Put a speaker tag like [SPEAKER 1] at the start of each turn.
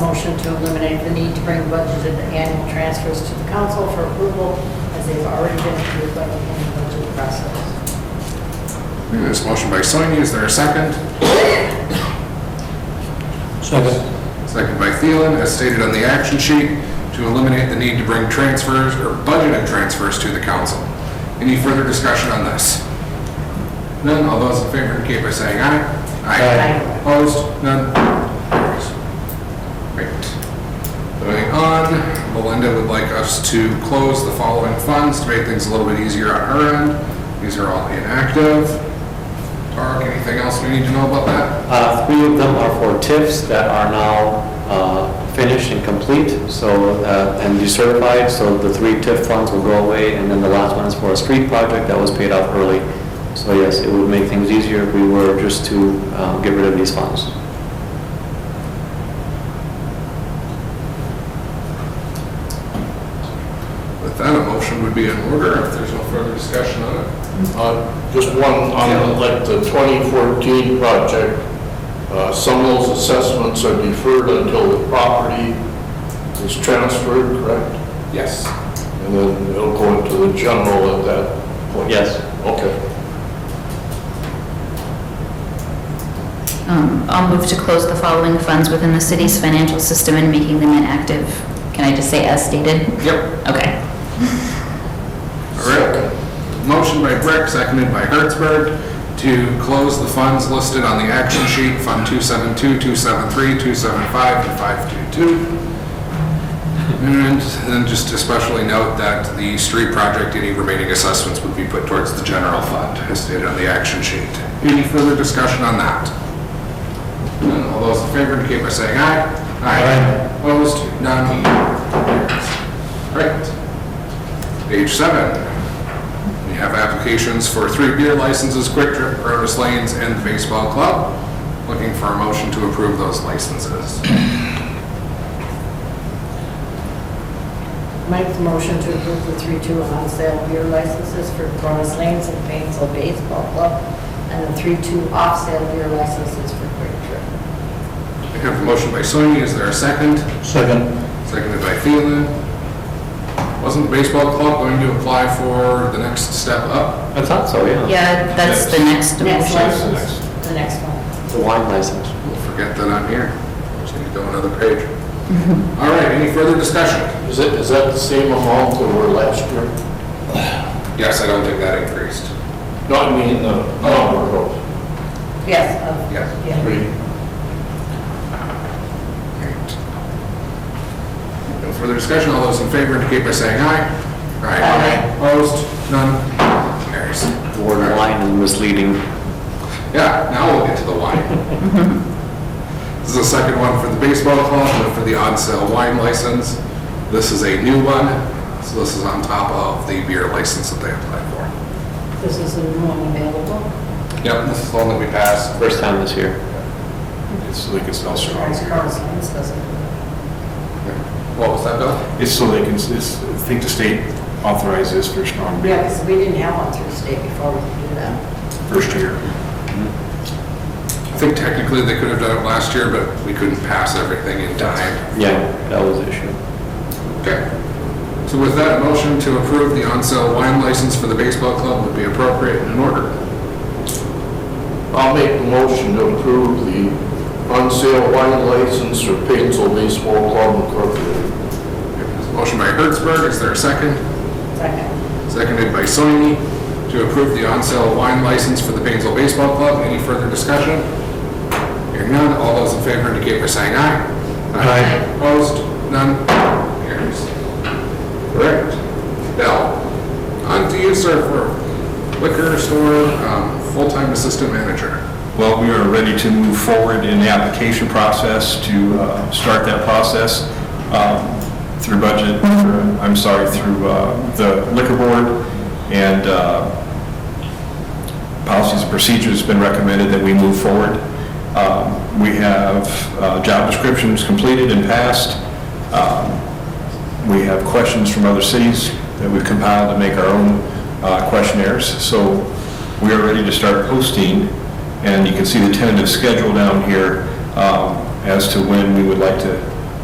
[SPEAKER 1] motion to eliminate the need to bring budgeted annual transfers to the council for approval as they've already been approved by the annual budget process.
[SPEAKER 2] This motion by Soini, is there a second?
[SPEAKER 3] Second.
[SPEAKER 2] Second by Thielen, as stated on the action sheet, to eliminate the need to bring transfers or budgeted transfers to the council. Any further discussion on this? None, all those in favor indicate by saying aye.
[SPEAKER 1] Aye.
[SPEAKER 2] Opposed? None? Carries. Great. Moving on, Melinda would like us to close the following funds to make things a little bit easier on her end. These are all inactive. Tarek, anything else we need to know about that?
[SPEAKER 3] Uh, Three of them are for TIFs that are now uh, finished and complete, so, uh, and decertified, so the three TIF funds will go away, and then the last one is for a street project that was paid off early. So yes, it would make things easier if we were just to uh, get rid of these funds.
[SPEAKER 2] With that, a motion would be in order if there's no further discussion on it.
[SPEAKER 4] Uh, Just one, on like the 2014 project, uh, some of those assessments are deferred until the property is transferred, correct?
[SPEAKER 2] Yes.
[SPEAKER 4] And then it'll go into the general at that point?
[SPEAKER 3] Yes.
[SPEAKER 4] Okay.
[SPEAKER 5] Um, I'll move to close the following funds within the city's financial system and making them inactive. Can I just say as stated?
[SPEAKER 2] Yep.
[SPEAKER 5] Okay.
[SPEAKER 2] All right. Motion by Brick, seconded by Hertzberg, to close the funds listed on the action sheet, Fund 272, 273, 275, and 522. And then just especially note that the street project, any remaining assessments would be put towards the general fund, as stated on the action sheet. Any further discussion on that? None. All those in favor indicate by saying aye. Aye. Opposed? None. All right. Page seven. We have applications for three beer licenses, Quick Trip, Rotus Lanes, and the Baseball Club. Looking for a motion to approve those licenses.
[SPEAKER 1] Make the motion to approve the three-two on sale beer licenses for Cronus Lanes and Painesville Baseball Club, and the three-two off sale beer licenses for Quick Trip.
[SPEAKER 2] I have a motion by Sony, is there a second?
[SPEAKER 3] Second.
[SPEAKER 2] Seconded by Thielen. Wasn't the Baseball Club going to apply for the next step up?
[SPEAKER 3] I thought so, yeah.
[SPEAKER 5] Yeah, that's the next
[SPEAKER 1] Next
[SPEAKER 5] motion.
[SPEAKER 1] license, the next one.
[SPEAKER 3] The wine license.
[SPEAKER 2] We'll forget that I'm here. Just need to go another page. All right, any further discussion?
[SPEAKER 4] Is that, is that the same amount that were last year?
[SPEAKER 2] Yes, I don't think that increased.
[SPEAKER 4] No, I mean, uh, the number of,
[SPEAKER 1] Yes, of,
[SPEAKER 2] Yes.
[SPEAKER 1] yeah.
[SPEAKER 4] three.
[SPEAKER 2] Right. No further discussion, all those in favor indicate by saying aye.
[SPEAKER 1] Aye.
[SPEAKER 2] Opposed? None? Carries.
[SPEAKER 3] The word wine is misleading.
[SPEAKER 2] Yeah, now we'll get to the wine. This is the second one for the baseball club, but for the on-sale wine license. This is a new one, so this is on top of the beer license that they applied
[SPEAKER 1] This is a new one available.
[SPEAKER 2] for. Yep, this is the one that we passed.
[SPEAKER 3] First time this year.
[SPEAKER 6] It's so they can sell strong
[SPEAKER 1] Cronus
[SPEAKER 6] beer.
[SPEAKER 1] Lanes doesn't.
[SPEAKER 2] What was that, Bill?
[SPEAKER 6] It's so they can, it's, I think the state authorizes for strong
[SPEAKER 1] Yeah,
[SPEAKER 6] beer
[SPEAKER 1] because we didn't have one through state before we could do that.
[SPEAKER 6] first year.
[SPEAKER 2] I think technically they could have done it last year, but we couldn't pass everything in time.
[SPEAKER 3] Yeah, that was the issue.
[SPEAKER 2] Okay. So with that, a motion to approve the on-sale wine license for the baseball club would be appropriate and in order.
[SPEAKER 4] I'll make the motion to approve the on-sale wine license for Painesville Baseball Club Incorporated.
[SPEAKER 2] Motion by Hertzberg, is there a second?
[SPEAKER 1] Second.
[SPEAKER 2] Seconded by Soini to approve the on-sale wine license for the Painesville Baseball Club. Any further discussion? Hearing none, all those in favor indicate by saying aye.
[SPEAKER 3] Aye.
[SPEAKER 2] Opposed? None? Carries. Correct. Now, on to you, sir, for liquor store, um, full-time assistant manager.
[SPEAKER 6] Well, we are ready to move forward in the application process to uh, start that process um, through budget, through- I'm sorry, through uh, the liquor board and uh, policies and procedures, it's been recommended that we move forward. Um, We have uh, job descriptions completed and passed. Um, We have questions from other cities that we've compiled to make our own uh, questionnaires. So we are ready to start posting, and you can see the tentative schedule down here um, as to when we would like to